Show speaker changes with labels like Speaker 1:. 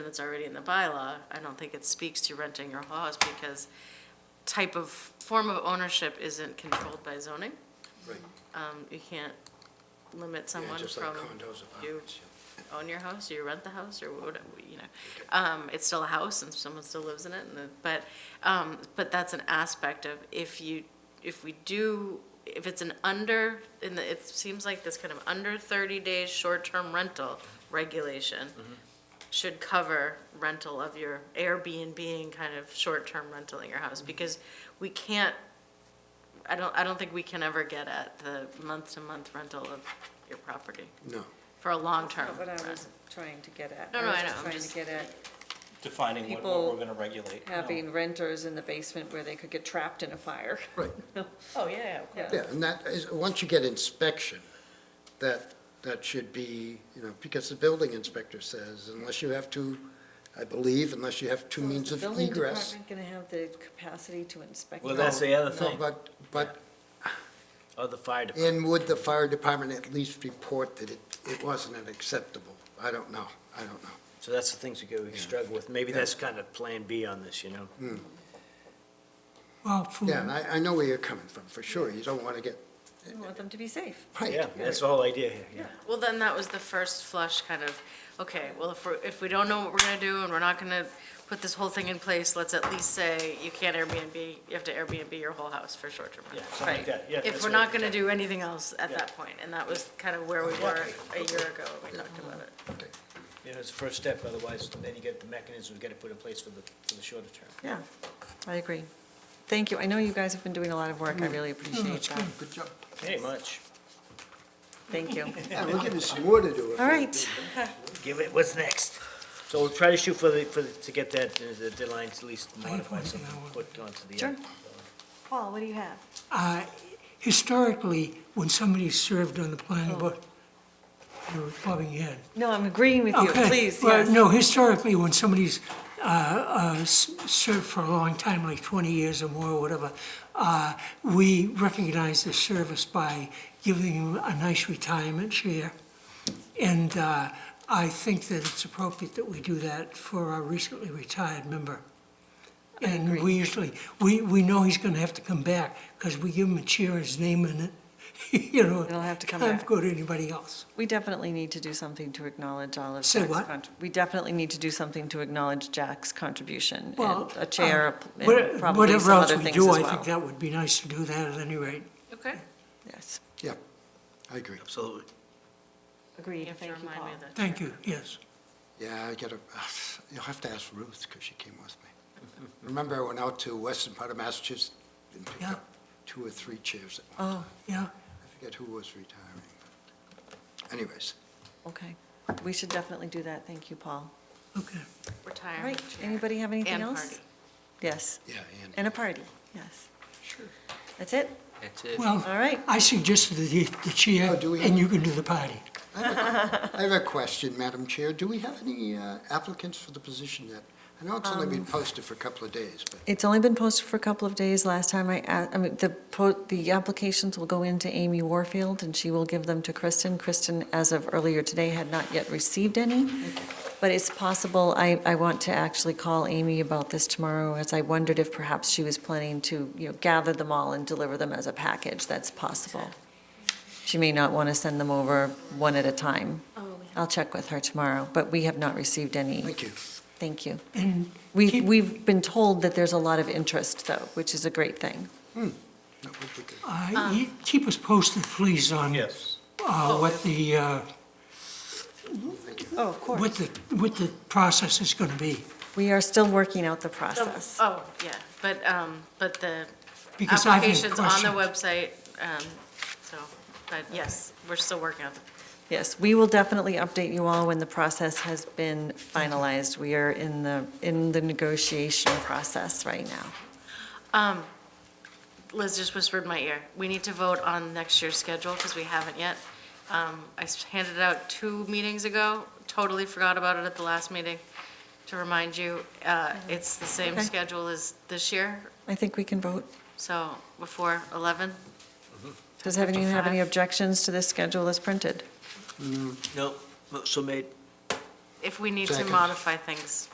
Speaker 1: that's already in the bylaw, I don't think it speaks to renting or laws because type of, form of ownership isn't controlled by zoning.
Speaker 2: Right.
Speaker 1: Um, You can't limit
Speaker 2: Yeah,
Speaker 1: someone
Speaker 2: just like
Speaker 1: from,
Speaker 2: condos, apartments. yeah.
Speaker 1: own your house, or you rent the house, or what, you know. Um, it's still a house and someone still lives in it, and the, but, um, but that's an aspect of if you, if we do, if it's an under, in the, it seems like this kind of under thirty days short-term rental regulation should cover rental of your Airbnb kind of short-term rental in your house, because we can't, I don't, I don't think we can ever get at the month-to-month rental of your property
Speaker 2: No.
Speaker 1: for a long-term
Speaker 3: Not what I
Speaker 1: rent.
Speaker 3: was trying to get at.
Speaker 1: No, no, I know, I'm
Speaker 3: was
Speaker 1: just-
Speaker 3: just trying to get
Speaker 4: defining what, what
Speaker 3: People
Speaker 4: we're gonna regulate.
Speaker 3: at
Speaker 4: no.
Speaker 3: having renters in the basement where they could get trapped in a fire.
Speaker 2: Right,
Speaker 1: Oh, yeah, yeah, of course.
Speaker 2: yeah, and that is, once you get inspection, that, that should be, you know, because the building inspector says, unless you have two, I believe, unless you have two means of
Speaker 3: Building
Speaker 2: egress.
Speaker 3: department gonna have the capacity to inspect.
Speaker 4: Well,
Speaker 3: that?
Speaker 4: that's the other
Speaker 2: No,
Speaker 4: thing,
Speaker 2: but, but,
Speaker 4: or Oh, the fire department.
Speaker 2: and would the fire department at least report that it, it wasn't an acceptable? I don't know, I don't know.
Speaker 4: So that's the things we go, we struggle with. Maybe that's kind of plan B on this, you know?
Speaker 5: Well,
Speaker 3: Hmm.
Speaker 5: for,
Speaker 2: Yeah, and I, I know where you're coming from, for sure, you don't want to get,
Speaker 3: We want them to be safe.
Speaker 2: right.
Speaker 4: Yeah, that's the whole idea here, yeah.
Speaker 1: Well, then that was the first flush kind of, okay, well, if we're, if we don't know what we're gonna do and we're not gonna put this whole thing in place, let's at least say you can't Airbnb, you have to Airbnb your whole house for short-term rental.
Speaker 4: Yeah, something like
Speaker 1: Right.
Speaker 4: that. Yeah,
Speaker 1: If
Speaker 4: that's
Speaker 1: we're
Speaker 4: what I
Speaker 1: not
Speaker 4: was
Speaker 1: gonna do anything else at
Speaker 4: Yeah.
Speaker 1: that point, and that was kind of where we were a year ago when we talked about it.
Speaker 2: Okay.
Speaker 4: You know, it's the first step, otherwise then you get the mechanism we gotta put in place for the, for the shorter term.
Speaker 3: Yeah, I agree. Thank you. I know you guys have been doing a lot of work. I really appreciate that.
Speaker 2: Good job.
Speaker 4: Pretty much.
Speaker 3: Thank you.
Speaker 2: Yeah, we'll give you some more to do. if
Speaker 3: All
Speaker 2: you-
Speaker 3: right.
Speaker 4: Give it, what's next? So we'll try to shoot for the, for, the- to get that, uh, the deadline to at least modify something, put onto the. uh,
Speaker 3: Sure. Paul, what do you have?
Speaker 5: uh, historically, when somebody served on the planning board, you were bobbing your head.
Speaker 3: No, I'm agreeing with you.
Speaker 5: Okay,
Speaker 3: Please,
Speaker 5: well,
Speaker 3: yes.
Speaker 5: No, historically, when somebody's uh, uh, s- served for a long time, like 20 years or more, or whatever, uh, we recognize their service by giving them a nice retirement share. And uh, I think that it's appropriate that we do that for our recently retired member. And we usually, we, we know he's gonna have to come back, because we give him a cheer, his name in it, you know.
Speaker 3: He'll have to come
Speaker 5: Can't
Speaker 3: back.
Speaker 5: go to anybody else.
Speaker 3: We definitely need to do something to acknowledge all of Jack's.
Speaker 5: Say what?
Speaker 3: contr- We definitely need to do something to acknowledge Jack's contribution,
Speaker 5: Well,
Speaker 3: and a chair,
Speaker 5: uh,
Speaker 3: a pl-
Speaker 5: what-
Speaker 3: and probably
Speaker 5: Whatever
Speaker 3: some
Speaker 5: else
Speaker 3: other
Speaker 5: we
Speaker 3: things as
Speaker 5: do, I think
Speaker 3: well.
Speaker 5: that would be nice to do that at any rate.
Speaker 1: Okay.
Speaker 3: Yes,
Speaker 2: Yeah, I agree.
Speaker 4: Absolutely.
Speaker 1: You
Speaker 3: agreed,
Speaker 1: have to
Speaker 3: thank you,
Speaker 1: remind
Speaker 3: Paul.
Speaker 1: me of that.
Speaker 5: Thank you, yes.
Speaker 2: Yeah, I gotta, you'll have to ask Ruth, because she came with me. Remember, I went out to western part of Massachusetts and picked
Speaker 5: Yeah.
Speaker 2: up two or three chairs. at once.
Speaker 3: Oh,
Speaker 5: Yeah,
Speaker 2: I forget who was retiring. but Anyways,
Speaker 3: okay. We should definitely do that, thank you, Paul.
Speaker 5: okay.
Speaker 3: All
Speaker 1: Retirement
Speaker 3: right,
Speaker 1: chair.
Speaker 3: anybody have anything
Speaker 1: And
Speaker 3: else?
Speaker 1: party.
Speaker 3: Yes,
Speaker 2: yeah, and.
Speaker 3: and a party, yes. Sure. That's it?
Speaker 5: Well,
Speaker 3: All right,
Speaker 5: I suggested the, the chair,
Speaker 2: Oh, do we-
Speaker 5: and you can do the party.
Speaker 2: I have a question, Madam Chair. Do we have any uh, applicants for the position yet? I know it's only been posted for a couple of days, but
Speaker 3: it's only been posted for a couple of days. Last time I, a- I mean, the, po- the applications will go into Amy Warfield, and she will give them to Kristen. Kristen, as of earlier today, had not yet received any, but it's possible, I, I want to actually call Amy about this tomorrow, as I wondered if perhaps she was planning to, you know, gather them all and deliver them as a package. That's possible. She may not want to send them over one at a time. I'll check with her tomorrow, but we have not received any.
Speaker 2: thank you.
Speaker 3: Thank you.
Speaker 5: And
Speaker 3: We've,
Speaker 5: Keep-
Speaker 3: we've been told that there's a lot of interest, though, which is a great thing.
Speaker 2: That would be good.
Speaker 5: uh, you keep us posted, please, on
Speaker 4: Yes.
Speaker 5: uh, what the, uh,
Speaker 3: Oh, of
Speaker 5: what the, what the process is gonna be.
Speaker 3: We are still working out the
Speaker 1: So-
Speaker 3: process.
Speaker 1: Oh, yeah, but, um, but the
Speaker 5: Because I've had
Speaker 1: application's on
Speaker 5: questions.
Speaker 1: the website, um, so, but yes, we're still working on it.
Speaker 3: Yes, we will definitely update you all when the process has been finalized. We are in the, in the negotiation process right now.
Speaker 1: Um, Liz just whispered in my ear, we need to vote on next year's schedule, because we haven't yet. Um, I s- handed it out two meetings ago, totally forgot about it at the last meeting, to remind you. Uh, it's the same
Speaker 3: Okay.
Speaker 1: schedule as this year,
Speaker 3: I think we can vote.
Speaker 1: so before 11.
Speaker 3: Does anyone have any
Speaker 1: 55.
Speaker 3: objections to this schedule as printed?
Speaker 4: No, so made.
Speaker 1: if we need to
Speaker 2: Second.
Speaker 1: modify things,